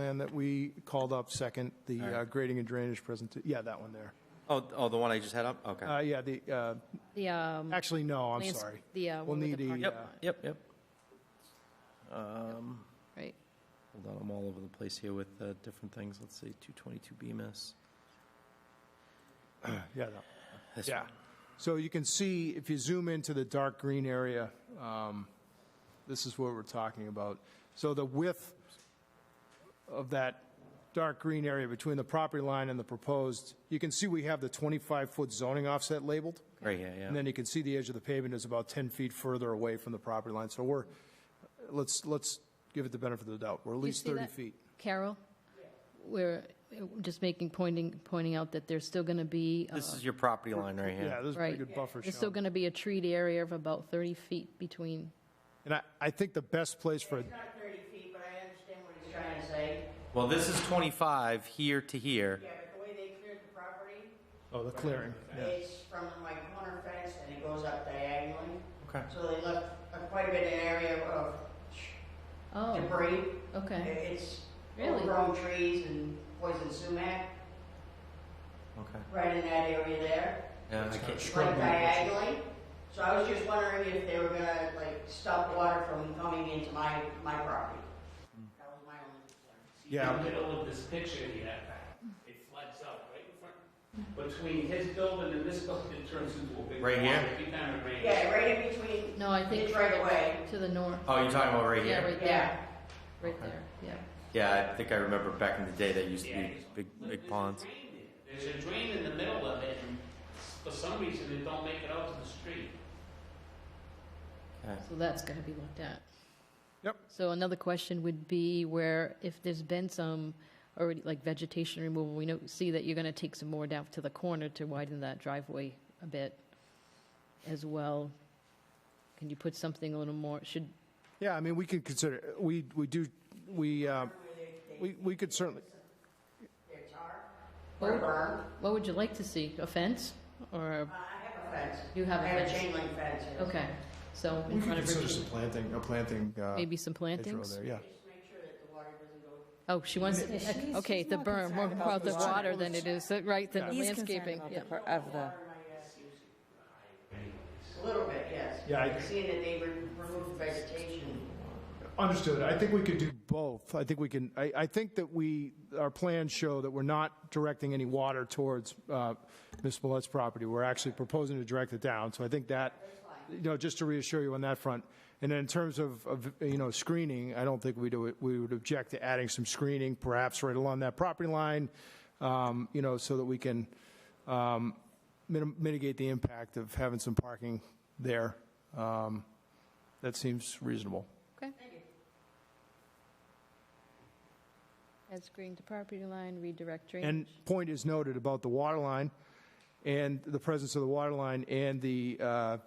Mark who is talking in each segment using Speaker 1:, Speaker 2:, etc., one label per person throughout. Speaker 1: plan that we called up second, the
Speaker 2: All right.
Speaker 1: uh, grading and drainage present, yeah, that one there.
Speaker 2: Oh, oh, the one I just had up? Okay.
Speaker 1: Uh, Yeah, the, uh,
Speaker 3: The, um,
Speaker 1: actually, no, I'm
Speaker 3: Lands-
Speaker 1: sorry.
Speaker 3: the, uh,
Speaker 1: We'll
Speaker 3: one with
Speaker 1: need
Speaker 3: the
Speaker 1: a,
Speaker 3: parking
Speaker 1: uh,
Speaker 2: Yep, yep, yep. Um,
Speaker 3: right,
Speaker 2: hold on, I'm all over the place here with uh, different things. Let's see, 222 Bemis.
Speaker 1: Yeah, that-
Speaker 2: This
Speaker 1: yeah.
Speaker 2: one.
Speaker 1: So you can see, if you zoom into the dark green area, um, this is what we're talking about. So the width of that dark green area between the property line and the proposed, you can see we have the 25-foot zoning offset labeled.
Speaker 2: Right here, yeah.
Speaker 1: And then you can see the edge of the pavement is about 10 feet further away from the property line. So we're, let's, let's give it the benefit of the doubt. We're at
Speaker 3: you
Speaker 1: least
Speaker 3: see
Speaker 1: 30
Speaker 3: that?
Speaker 1: feet.
Speaker 3: Carol? We're uh, just making, pointing, pointing out that there's still going to be, uh,
Speaker 2: this is your property line right here.
Speaker 1: Yeah, there's a pretty
Speaker 3: right.
Speaker 1: good buffer
Speaker 3: There's still
Speaker 1: shown.
Speaker 3: going to be a treed area of about 30 feet between,
Speaker 1: And I, I think the best place for,
Speaker 4: It's not 30 feet, but I understand what he's trying to say.
Speaker 2: Well, this is 25 here to here.
Speaker 4: Yeah, but the way they cleared the property
Speaker 1: oh, the clearing.
Speaker 4: is from my corner fence and it goes up diagonally.
Speaker 2: Okay.
Speaker 4: So they left a- quite a bit of area of
Speaker 3: oh,
Speaker 4: debris.
Speaker 3: okay,
Speaker 4: It's
Speaker 3: Really?
Speaker 4: overgrown trees and poison sumac
Speaker 2: Okay.
Speaker 4: right in that area there,
Speaker 2: Yeah, I can't.
Speaker 4: like diagonally. So I was just wondering if they were gonna like stop water from coming into my, my property.
Speaker 2: Hmm.
Speaker 4: That was my only concern.
Speaker 1: Yeah.
Speaker 5: In the middle of this picture here, it floods out right in front. Between his building and this building, it turns into a big.
Speaker 2: Right here?
Speaker 5: pond. Every time it rains.
Speaker 4: Yeah, right in between.
Speaker 3: no, I think
Speaker 4: It's right away.
Speaker 3: to the north,
Speaker 2: Oh, you're talking about right
Speaker 3: yeah,
Speaker 2: here?
Speaker 3: right
Speaker 4: Yeah.
Speaker 3: there, right there, yeah.
Speaker 2: Yeah, I think I remember back in the day that used to
Speaker 5: Yeah,
Speaker 2: be
Speaker 5: it's-
Speaker 2: big,
Speaker 5: look,
Speaker 2: big
Speaker 5: there's a
Speaker 2: ponds.
Speaker 5: drain there. There's a drain in the middle of it, and for some reason, it don't make it out to the street.
Speaker 3: So that's got to be looked at.
Speaker 1: Yep.
Speaker 3: So another question would be where, if there's been some already, like vegetation removal, we know, see that you're going to take some more down to the corner to widen that driveway a bit as well. Can you put something a little more, should,
Speaker 1: Yeah, I mean, we could consider, we, we do, we, uh, we we could certainly,
Speaker 4: Their tar, or burn.
Speaker 3: what would you like to see? A fence or,
Speaker 4: Uh, I have a fence.
Speaker 3: You have a
Speaker 4: I have a
Speaker 3: fence.
Speaker 4: chain link fence. yes.
Speaker 3: okay, so
Speaker 1: we
Speaker 3: in
Speaker 1: could
Speaker 3: front of
Speaker 1: consider
Speaker 3: Richard,
Speaker 1: some planting, a planting. uh,
Speaker 3: maybe some
Speaker 1: hedgerow
Speaker 3: plantings?
Speaker 1: there, Yeah.
Speaker 4: Just make sure that the water doesn't go
Speaker 3: Oh, she wants, okay, the berm, more about the water than it is, right, than
Speaker 6: He's concerned
Speaker 3: landscaping,
Speaker 6: about
Speaker 3: yeah.
Speaker 6: the, per- of the,
Speaker 4: a little bit, yes.
Speaker 1: Yeah, I-
Speaker 4: Seeing that they re- removed vegetation.
Speaker 1: Understood. I think we could do both. I think we can, I, I think that we, our plans show that we're not directing any water towards uh, Ms. Millet's property. We're actually proposing to direct it down. So I think that, you know, just to reassure you on that front. And then in terms of, of, you know, screening, I don't think we do, we would object to adding some screening, perhaps right along that property line, um, you know, so that we can um, minim- mitigate the impact of having some parking there. Um, That seems reasonable.
Speaker 3: Okay. As green to property line, redirect
Speaker 1: And
Speaker 3: drainage.
Speaker 1: point is noted about the water line and the presence of the water line and the uh,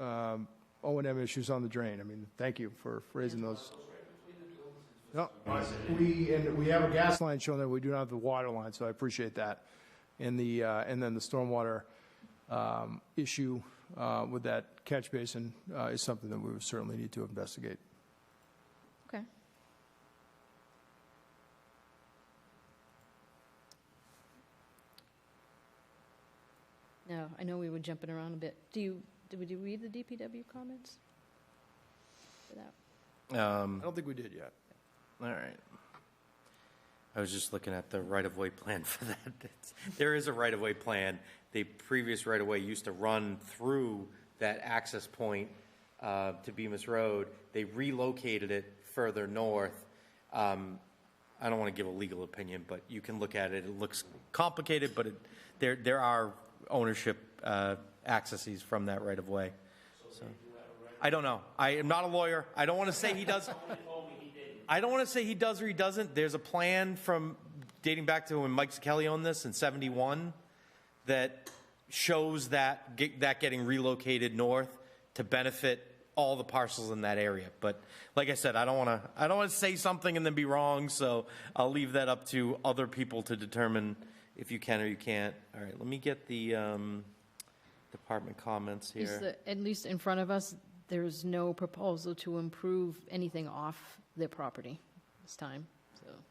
Speaker 1: um, O and M issues on the drain. I mean, thank you for raising those. No, we, and we have a gas line showing that we do not have the water line, so I appreciate that. And the, uh, and then the stormwater um, issue uh, with that catch basin uh, is something that we would certainly need to investigate.
Speaker 3: Okay. No, I know we were jumping around a bit. Do you, did you read the DPW comments? For that?
Speaker 2: Um,
Speaker 1: I don't think we did yet.
Speaker 2: all right. I was just looking at the right-of-way plan for that. That's- There is a right-of-way plan. The previous right-of-way used to run through that access point uh, to Bemis Road. They relocated it further north. Um, I don't want to give a legal opinion, but you can look at it. It looks complicated, but it, there, there are ownership uh, accesses from that right-of-way. So, I don't know. I am not a lawyer. I don't want to say he does. I don't want to say he does or he doesn't. There's a plan from dating back to when Mike Kelly owned this in '71 that shows that get, that getting relocated north to benefit all the parcels in that area. But like I said, I don't want to I don't want to say something and then be wrong. So I'll leave that up to other people to determine if you can or you can't. All right, let me get the um, department comments here.
Speaker 3: Is the- At least in front of us, there is no proposal to improve anything off their property this time, so.